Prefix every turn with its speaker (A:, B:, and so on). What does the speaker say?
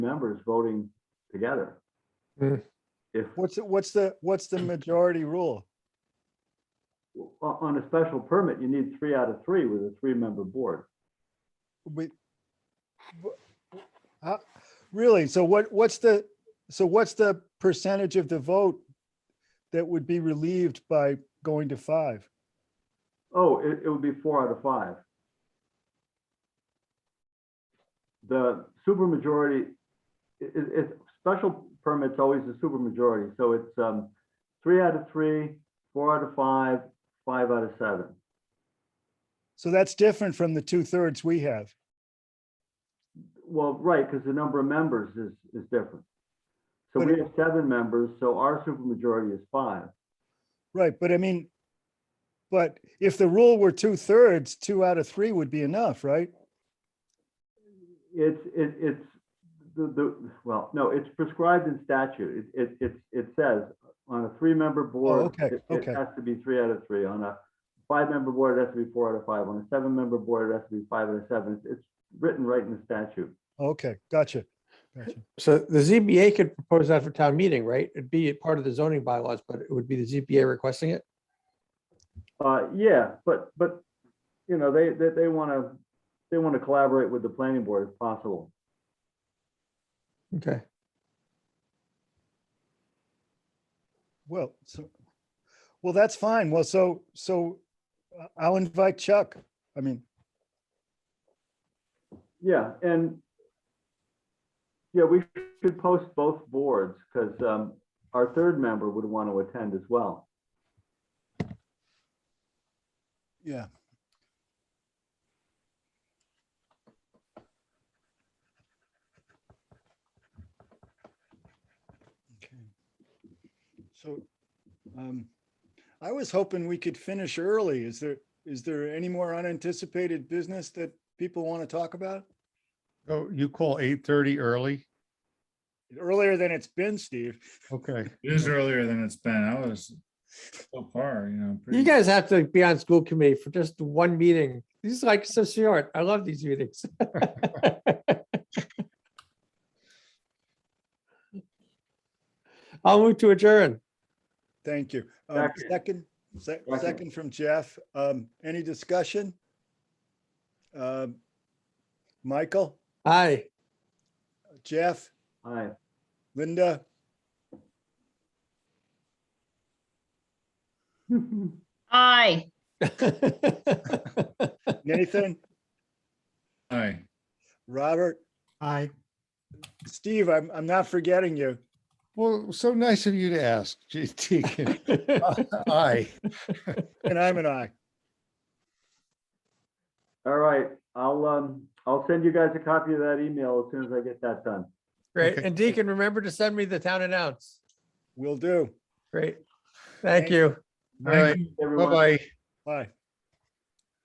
A: members voting together.
B: Hmm.
A: If,
C: What's, the- what's the, what's the majority rule?
A: on on a special permit, you need three out of three with a three-member board.
C: We, wh- how- really? So what, what's the, so what's the percentage of the vote that would be relieved by going to five?
A: Oh, it, it would be four out of five. The supermajority, i- i- it's, special permit's always a supermajority, so it's, um, three out of three, four out of five, five out of seven.
C: So that's different from the two thirds we have.
A: Well, right, because the number of members is, is different. So
C: But
A: we
C: it-
A: have seven members, so our supermajority is five.
C: Right, but I mean, but if the rule were two thirds, two out of three would be enough, right?
A: It's, it, it's, the, the, well, no, it's prescribed in statute. It, it, it, it says on a three-member board,
C: Oh, okay,
A: it it
C: okay.
A: has to be three out of three. On a five-member board, it has to be four out of five. On a seven-member board, it has to be five out of seven. It's- It's written right in the statute.
C: Okay, gotcha. Gotcha.
B: So the ZBA could propose that for town meeting, right? It'd be a part of the zoning bylaws, but it would be the ZBA requesting it.
A: Uh, yeah, but, but, you know, they, they, they want to, they want to collaborate with the planning board if possible.
B: Okay.
C: Well, so, well, that's fine. Well, so, so uh, I'll invite Chuck. I mean,
A: Yeah, and yeah, we should post both boards because our third member would want to attend as well.
C: yeah. Okay. So, um, I was hoping we could finish early. Is there, is there any more unanticipated business that people want to talk about?
D: Oh, you call eight thirty early?
C: Earlier than it's been, Steve.
D: Okay,
E: It is earlier than it's been. I was so far, you know.
B: You
E: pretty-
B: guys have to be on school committee for just one meeting. These are like so short. I love these meetings. I'll move to adjourn.
C: Thank you. Um,
A: Second.
C: Second, se-
A: Second.
C: second from Jeff. Um, Any discussion? Um, Michael,
B: Aye.
C: Jeff,
A: Aye.
C: Linda,
F: Aye.
C: Nathan,
E: Aye.
C: Robert,
D: Hi.
C: Steve, I'm, I'm not forgetting you.
D: Well, so nice of you to ask, Gee, Deacon. Aye.
C: And I'm an I.
A: All right, I'll, um, I'll send you guys a copy of that email as soon as I get that done.
B: Great.
D: Okay.
B: And Deacon, remember to send me the town announce.
C: Will do.
B: Great.
C: Thank
B: Thank you.
D: All right,
A: Everyone.
D: bye-bye.
C: Bye.